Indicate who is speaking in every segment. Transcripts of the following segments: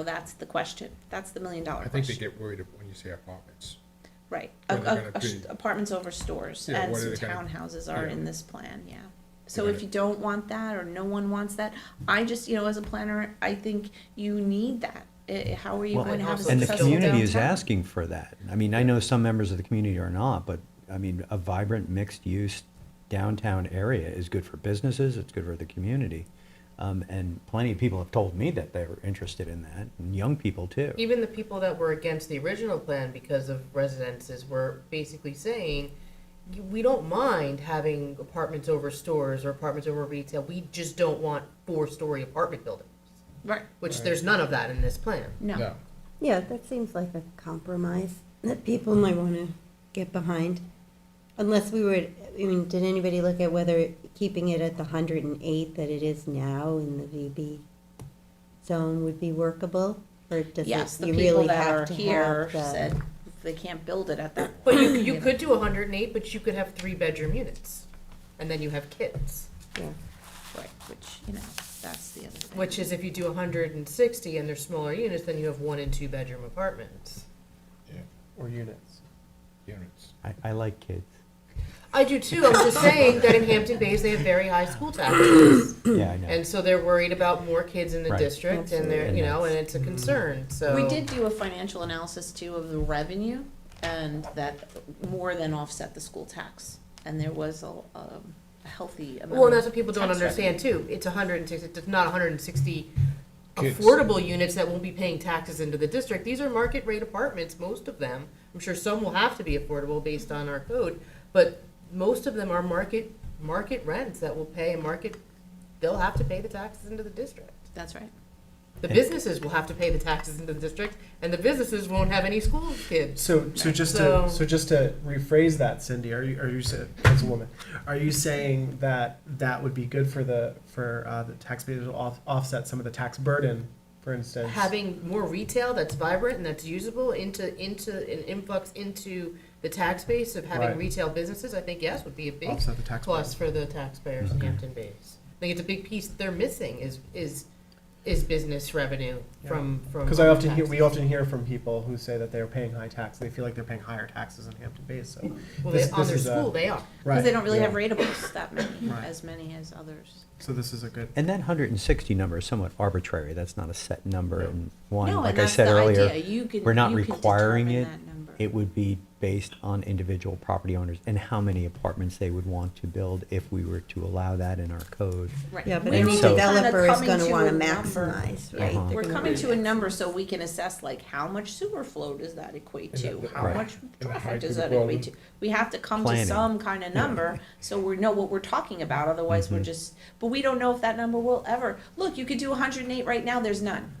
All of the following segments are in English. Speaker 1: So that's the question. That's the million dollar
Speaker 2: I think they
Speaker 1: question.
Speaker 2: get worried when you say apartments.
Speaker 1: Right.
Speaker 2: what
Speaker 1: A-
Speaker 2: they're
Speaker 1: a-
Speaker 2: gonna
Speaker 1: a sh-
Speaker 2: be-
Speaker 1: Apartments over stores
Speaker 2: Yeah,
Speaker 1: and
Speaker 2: what
Speaker 1: some
Speaker 2: are they gonna-
Speaker 1: townhouses are
Speaker 2: yeah.
Speaker 1: in this plan, yeah. So
Speaker 2: They're
Speaker 1: if you don't want that or no one wants that, I just, you know, as a planner, I think you need that. I- how are you
Speaker 3: Well,
Speaker 1: going to have a
Speaker 3: And the
Speaker 1: successful
Speaker 3: community is
Speaker 1: downtown?
Speaker 3: asking for that. I mean, I know some members of the community are not, but I mean, a vibrant mixed-use downtown area is good for businesses, it's good for the community. Um, and plenty of people have told me that they were interested in that, and young people too.
Speaker 4: Even the people that were against the original plan because of residences were basically saying, "You- we don't mind having apartments over stores or apartments over retail. We just don't want four-story apartment buildings,
Speaker 1: Right,
Speaker 4: which there's none of that in this plan.
Speaker 1: no.
Speaker 2: No,
Speaker 5: Yeah, that seems like a compromise that people might want to get behind. Unless we were, I mean, did anybody look at whether keeping it at the hundred and eight that it is now in the VB zone would be workable? Or does
Speaker 1: Yes,
Speaker 5: it,
Speaker 1: the
Speaker 5: you
Speaker 1: people
Speaker 5: really
Speaker 1: that are
Speaker 5: have to
Speaker 1: here
Speaker 5: have the?
Speaker 1: said they can't build it at that.
Speaker 4: But you, you could do 108, but you could have three-bedroom units, and then you have kids.
Speaker 5: yeah.
Speaker 1: Right, which, you know, that's the other thing.
Speaker 4: Which is if you do 160 and they're smaller units, then you have one and two-bedroom apartments.
Speaker 6: Or units.
Speaker 2: units.
Speaker 3: I, I like kids.
Speaker 4: I do too. I'm just saying that in Hampton Bays they have very high school taxes.
Speaker 3: Yeah, I know.
Speaker 4: And so they're worried about more kids in the
Speaker 3: Right. Mm-hmm.
Speaker 4: district and they're, you know, and it's a concern, so.
Speaker 1: We did do a financial analysis too of the revenue and that more than offset the school tax. And there was a, um, a healthy amount.
Speaker 4: Well, and that's
Speaker 1: of
Speaker 4: what people don't
Speaker 1: tax revenue.
Speaker 4: understand too. It's hundred and sixty, it's not hundred and sixty
Speaker 2: Kids.
Speaker 4: affordable units that won't be paying taxes into the district. These are market rate apartments, most of them. I'm sure some will have to be affordable based on our code, but most of them are market, market rents that will pay a market, they'll have to pay the taxes into the district.
Speaker 1: That's right.
Speaker 4: The
Speaker 3: And-
Speaker 4: businesses will have to pay the taxes into the district, and the businesses won't have any school kids.
Speaker 6: So, so just
Speaker 4: So-
Speaker 6: to, so just to rephrase that, Cindy, are you, are you, sa- as a woman, are you saying that that would be good for the, for, uh, the taxpayers to off, offset some of the tax burden, for instance?
Speaker 4: Having more retail that's vibrant and that's usable into into an influx into the tax base of having
Speaker 6: Right.
Speaker 4: retail businesses, I think yes would be a big
Speaker 6: Offset the tax burden.
Speaker 4: plus for the taxpayers in Hampton Bays. I think it's a big piece that they're missing is is is business revenue from from.
Speaker 6: Because I often hear, we often hear from people who say that they're paying high tax, they feel like they're paying higher taxes in Hampton Bays, so.
Speaker 4: well,
Speaker 6: this-
Speaker 4: they, on
Speaker 6: this
Speaker 4: their
Speaker 6: is a-
Speaker 4: school they are.
Speaker 1: Because they
Speaker 6: Right,
Speaker 1: don't really have
Speaker 6: yeah.
Speaker 1: ratables that many,
Speaker 6: Right.
Speaker 1: as many as others.
Speaker 6: So this is a good.
Speaker 3: And that hundred and sixty number is somewhat arbitrary. That's not a set number and one,
Speaker 1: No,
Speaker 3: like
Speaker 1: and
Speaker 3: I
Speaker 1: that's
Speaker 3: said
Speaker 1: the
Speaker 3: earlier.
Speaker 1: idea. You can-
Speaker 3: We're not
Speaker 1: you can
Speaker 3: requiring
Speaker 1: determine
Speaker 3: it.
Speaker 1: that number.
Speaker 3: It would be based on individual property owners and how many apartments they would want to build if we were to allow that in our code.
Speaker 1: Right.
Speaker 5: Yeah, but
Speaker 1: We're
Speaker 5: any
Speaker 1: all
Speaker 3: so-
Speaker 1: kinda
Speaker 5: developer is
Speaker 1: coming
Speaker 5: gonna
Speaker 1: to
Speaker 5: wanna
Speaker 1: a number.
Speaker 5: maximize, right?
Speaker 3: Uh-huh.
Speaker 5: They're
Speaker 1: We're
Speaker 5: gonna
Speaker 1: coming
Speaker 5: wanna
Speaker 1: to a
Speaker 5: max-
Speaker 1: number so we can assess like how much sewer flow does that equate
Speaker 2: And
Speaker 1: to?
Speaker 2: the-
Speaker 1: How
Speaker 3: Right.
Speaker 1: much
Speaker 2: the
Speaker 1: traffic
Speaker 2: height
Speaker 1: does
Speaker 2: of the
Speaker 1: that equate to?
Speaker 2: building.
Speaker 1: We have to come to
Speaker 3: Planning.
Speaker 1: some kind of number, so we know what we're talking about, otherwise
Speaker 2: Mm-hmm.
Speaker 1: we're just, but we don't know if that number will ever, look, you could do hundred and eight right now, there's none.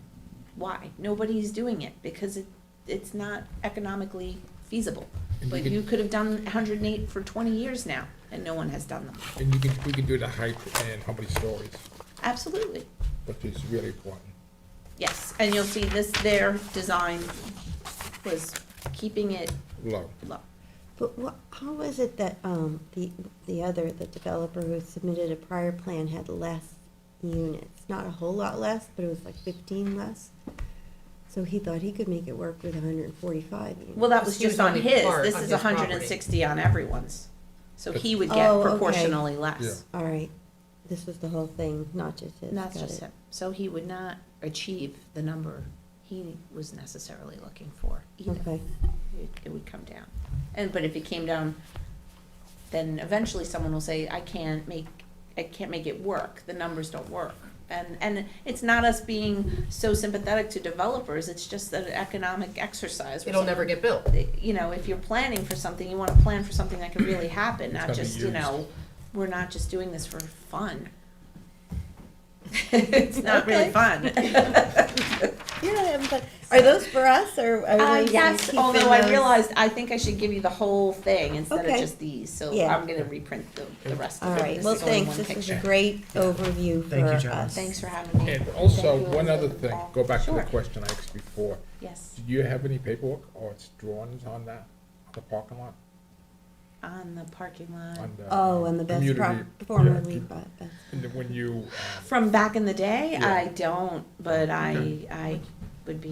Speaker 1: Why? Nobody's doing it because it, it's not economically feasible.
Speaker 2: And you
Speaker 1: But
Speaker 2: could-
Speaker 1: you could have done hundred and eight for twenty years now and no one has done them.
Speaker 2: And you can, we can do the height and how many stories,
Speaker 1: Absolutely.
Speaker 2: which is really important.
Speaker 1: Yes, and you'll see this, their design was keeping it
Speaker 2: Low.
Speaker 1: low.
Speaker 5: But what, how was it that, um, the, the other, the developer who submitted a prior plan had less units? Not a whole lot less, but it was like fifteen less. So he thought he could make it work with hundred and forty-five units.
Speaker 1: Well, that was
Speaker 4: He was
Speaker 1: just on
Speaker 4: only
Speaker 1: his,
Speaker 4: part
Speaker 1: this
Speaker 4: on
Speaker 1: is
Speaker 4: his
Speaker 1: hundred and sixty on everyone's. So he would get
Speaker 5: Oh, okay.
Speaker 1: proportionally less,
Speaker 2: Yeah.
Speaker 5: All right, this was the whole thing, not just his.
Speaker 1: and that's
Speaker 5: got
Speaker 1: just
Speaker 5: it.
Speaker 1: him. So he would not achieve the number he was necessarily looking for either.
Speaker 5: Okay,
Speaker 1: It- It would come down. And, but if it came down, then eventually someone will say, I can't make, I can't make it work, the numbers don't work. And, and it's not us being so sympathetic to developers, it's just an economic exercise. where
Speaker 4: It'll never get built.
Speaker 1: someone- You know, if you're planning for something, you wanna plan for something that can really happen, not
Speaker 2: gotta be
Speaker 1: just, you
Speaker 2: used.
Speaker 1: know, we're not just doing this for fun. It's not really
Speaker 5: Okay.
Speaker 1: fun.
Speaker 5: yeah, but are those for us, or
Speaker 1: Uh,
Speaker 5: are we gonna
Speaker 1: yes,
Speaker 5: keep
Speaker 1: although
Speaker 5: in
Speaker 1: I
Speaker 5: those?
Speaker 1: realized, I think I should give you the whole thing instead of
Speaker 5: Okay.
Speaker 1: just these, so
Speaker 5: Yeah.
Speaker 1: I'm gonna reprint the, the rest
Speaker 5: All
Speaker 1: of it.
Speaker 5: right,
Speaker 1: This
Speaker 5: well,
Speaker 1: is only
Speaker 5: thanks,
Speaker 1: one
Speaker 5: this was a
Speaker 1: picture.
Speaker 5: great overview for
Speaker 6: Thank you,
Speaker 5: us.
Speaker 6: John.
Speaker 1: Thanks for having me.
Speaker 2: And also,
Speaker 1: Thank you.
Speaker 2: one other thing, go back to the
Speaker 1: Sure.
Speaker 2: question I asked before.
Speaker 1: Yes,
Speaker 2: Do you have any paperwork or it's drawings on that, on the parking lot?
Speaker 1: on the parking lot,
Speaker 2: on the,
Speaker 5: Oh,
Speaker 2: uh,
Speaker 5: and the best
Speaker 2: community-
Speaker 5: prop,
Speaker 2: yeah,
Speaker 5: formerly,
Speaker 2: do-
Speaker 5: but, but.
Speaker 2: And then when you, um,
Speaker 1: from back in the day,
Speaker 2: Yeah.
Speaker 1: I don't, but I,
Speaker 2: Okay.
Speaker 1: I would be